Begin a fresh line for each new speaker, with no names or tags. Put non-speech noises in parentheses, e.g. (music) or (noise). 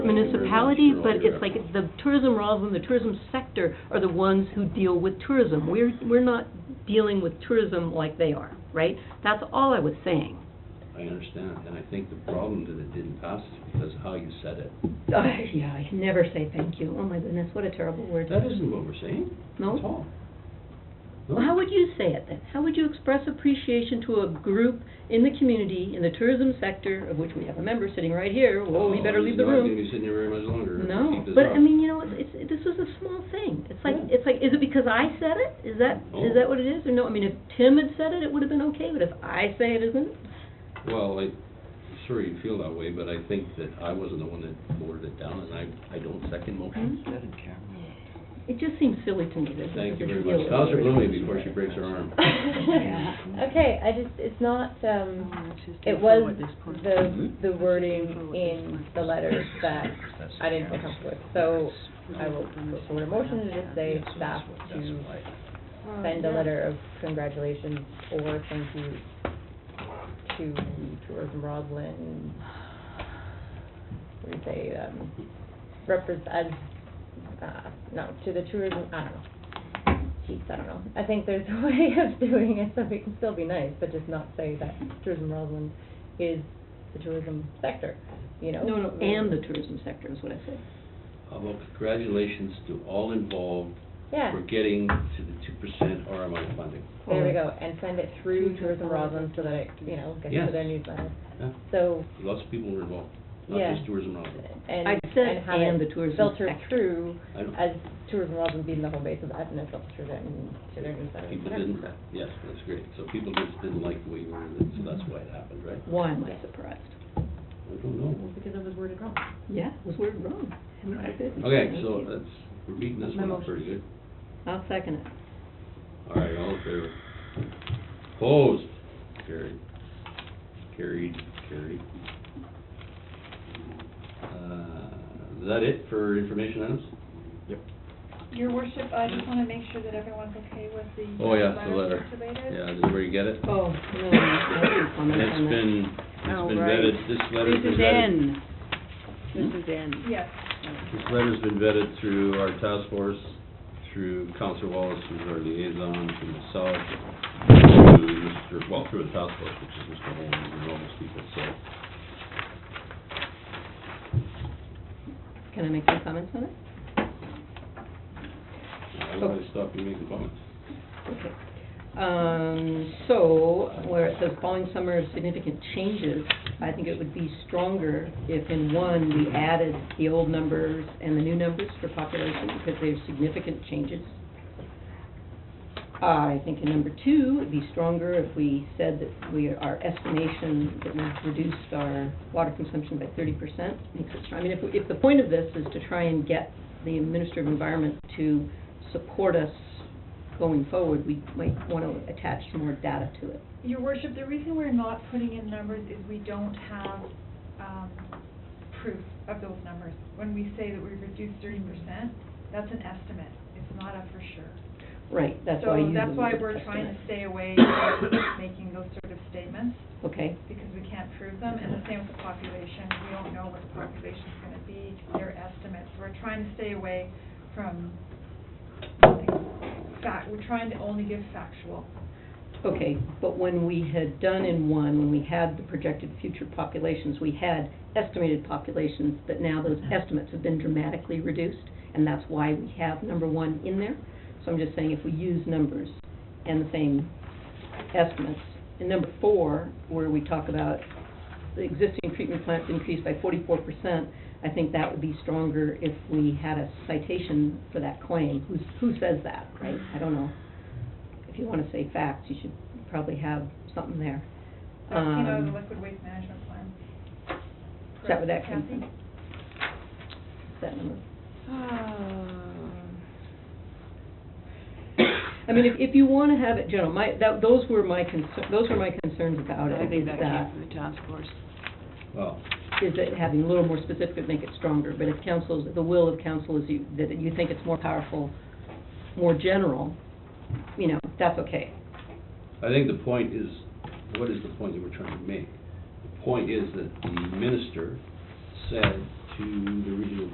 municipality, but it's like the tourism rather than the tourism sector are the ones who deal with tourism. We're, we're not dealing with tourism like they are, right? That's all I was (laughs) saying.
I understand, and I think the problem that it didn't pass is because of how you said it.
Ah, Yeah, I can never say thank you. Oh my goodness, what a terrible word.
That isn't what we're saying.
No?
At all. No.
Well, how would you say it then? How would you express appreciation to a group in the community, in the tourism sector, of which we have a member sitting right here, well, we
Oh,
better leave the
He's not gonna
room.
be sitting here very much longer. if we
No,
keep this
but
up.
I mean, you know, it's, it's, this is a small thing. It's like,
Yeah.
it's like, is it because I said it? Is that,
Oh.
is that what it is? Or no, I mean, if Tim had said it, it would have been okay, but if I say it isn't?
Well, I, sure you feel that way, but I think that I wasn't the one that voted it down, and I, I don't second motion.
It just seems silly to me that this
Thank you
is a
very
deal
much.
with
Counselor
tourism.
Blumey before she breaks her arm.
(laughs) Okay, I just, it's not, um, it was the, the wording in the letter that I didn't feel comfortable with. So I will put forward a motion to just say staff to
Oh,
send a letter of congratulations or thank you to Tourism Roslin. What do you say, um, represent, uh, no, to the tourism, I don't know. Jeez, I don't know. I think there's (laughs) a way of doing it so we can still be nice, but just not say that Tourism Roslin is the tourism sector, you know?
No, no, and the tourism sector is what I said. Mm-hmm.
How about Uh, congratulations to all involved
Yeah.
for getting to the two percent RMI funding.
There we go, and send it through Tourism Roslin so that it, you know, gets
Yes.
to their newsletter.
Yeah.
So,
Lots of people were involved, not
Yeah.
just tourism office.
and,
I said
and have
and the
it
tourism
filter
sector.
through
I don't-
as Tourism Roslin being the home base of that, and it filters through their, to their newsletter.
People didn't, yes, that's great. So people just didn't like the way you worded it, so that's why it happened, right?
Why am I surprised?
I don't know.
Because it was worded wrong.
Yeah, it was worded wrong. And I did.
Okay,
Thank
so uh,
you.
that's, we're beating this one up pretty good.
I'll second it.
All right, all in favor? Opposed? Carried. Carried, carried. Uh, Is that it for information items?
Your worship, I just wanna make sure that everyone's okay with the.
Oh, yeah,
uh,
the letter.
circulated.
Yeah, this is where you get it.
Oh, no, I didn't
And
comment
it's
on that.
been, it's
Oh,
been
right.
vetted, this letter's been
This
vetted. Hmm?
is in, this is in.
Yes,
This letter's been vetted through our task force, through Counselor Wallace, who's our liaison, through myself, through Mr., well, through the task force, which is Mr. Holmes and all those people, so.
Can I make some comments on it?
I don't want to stop you making comments.
Okay. Um, so, where it says following summer significant changes, I think it would be stronger if in one, we added the old numbers and the new numbers for population, because they're significant changes. I think in number two, it'd be stronger if we said that we, our estimation that we've reduced our water consumption by thirty percent makes it strong. I mean, if, if the point of this is to try and get the Minister of Environment to support us going forward, we might want to attach more data to it.
your worship, the reason we're not putting in numbers is we don't have, um, proof of those numbers. When we say that we reduced thirty percent, that's an estimate, it's not a for sure.
Right, that's why I use
So
the
that's why
word
we're trying to
estimate.
stay away from making those sort of statements,
Okay,
because we can't prove them, and the same with the population, we don't know what the population's gonna be, their estimates, we're trying to stay away from, like, fact, we're trying to only give factual.
okay, but when we had done in one, when we had the projected future populations, we had estimated populations, but now those estimates have been dramatically reduced, and that's why we have number one in there. So I'm just saying if we use numbers and the same estimates. And number four, where we talk about the existing treatment plants increased by forty-four percent, I think that would be stronger if we had a citation for that claim. Who's, who says that, right? I don't know. If you wanna say facts, you should probably have something there.
That's, you know, the
Um,
liquid waste management plan.
Is that where that comes
Kathy?
from? That number.
(sighs)
I mean, if, if you wanna have it general, my, that, those were my concern, those were my concerns about it.
I think
was
that came from the task force.
Well,
is that having a little more specific would make it stronger, but if council's, the will of council is you, that you think it's more powerful, more general, you know, that's okay.
I think the point is, what is the point that we're trying to make? The point is that the minister said to the